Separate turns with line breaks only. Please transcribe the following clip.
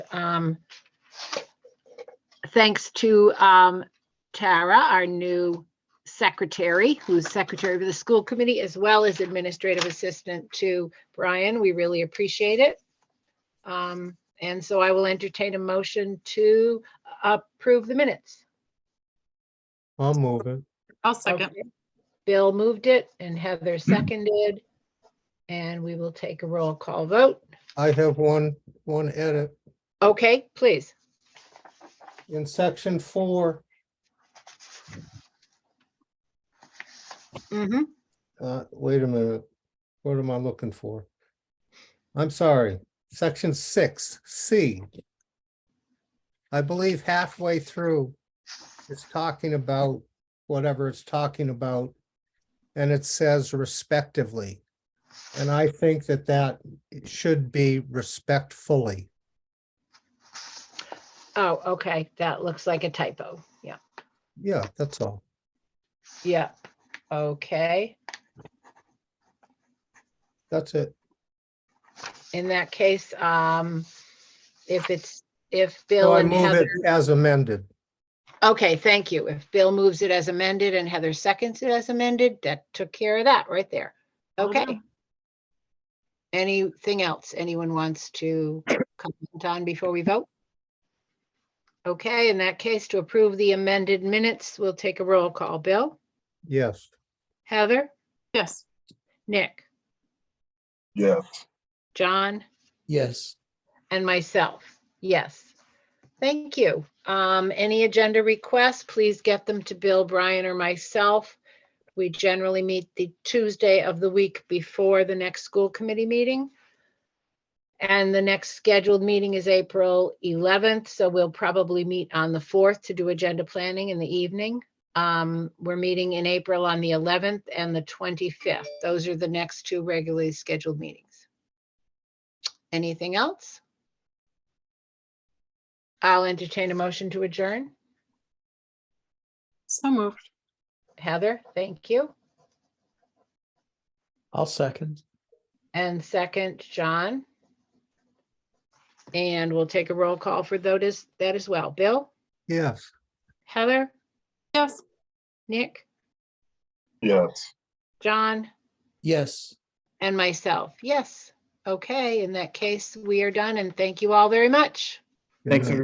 um, thanks to um, Tara, our new secretary, who's secretary of the school committee, as well as administrative assistant to Brian. We really appreciate it. Um, And so I will entertain a motion to approve the minutes.
I'll move it.
I'll second.
Okay. Bill moved it and Heather seconded. And we will take a roll call vote.
I have one, one edit.
Okay, please.
In section four,
Mhm.
uh, wait a minute. What am I looking for? I'm sorry, section six, C. I believe halfway through, it's talking about whatever it's talking about. And it says respectively. And I think that that should be respectfully.
Oh, okay, that looks like a typo. Yeah,
Yeah, that's all.
yeah. Okay,
That's it.
in that case, um, if it's, if
So
Bill
Oh, I
and
move it
Heather,
as amended.
okay, thank you. If Bill moves it as amended and Heather seconds it as amended, that took care of that right there.
Well
Okay.
done.
Anything else anyone wants to comment on before we vote? Okay, in that case, to approve the amended minutes, we'll take a roll call. Bill,
Yes.
Heather,
Yes,
Nick,
Yes,
John?
Yes.
And myself, yes. Thank you. Um, any agenda requests, please get them to Bill, Brian, or myself. We generally meet the Tuesday of the week before the next school committee meeting. And the next scheduled meeting is April eleventh, so we'll probably meet on the fourth to do agenda planning in the evening. Um, we're meeting in April on the eleventh and the twenty-fifth. Those are the next two regularly scheduled meetings. Anything else? I'll entertain a motion to adjourn.
so moved.
Heather, thank you.
I'll second.
And second, John. And we'll take a roll call for tho- does- that as well. Bill,
Yes.
Heather,
Yes.
Nick,
yes.
John,
Yes.
and myself. Yes. Okay, in that case, we are done and thank you all very much.
Thanks,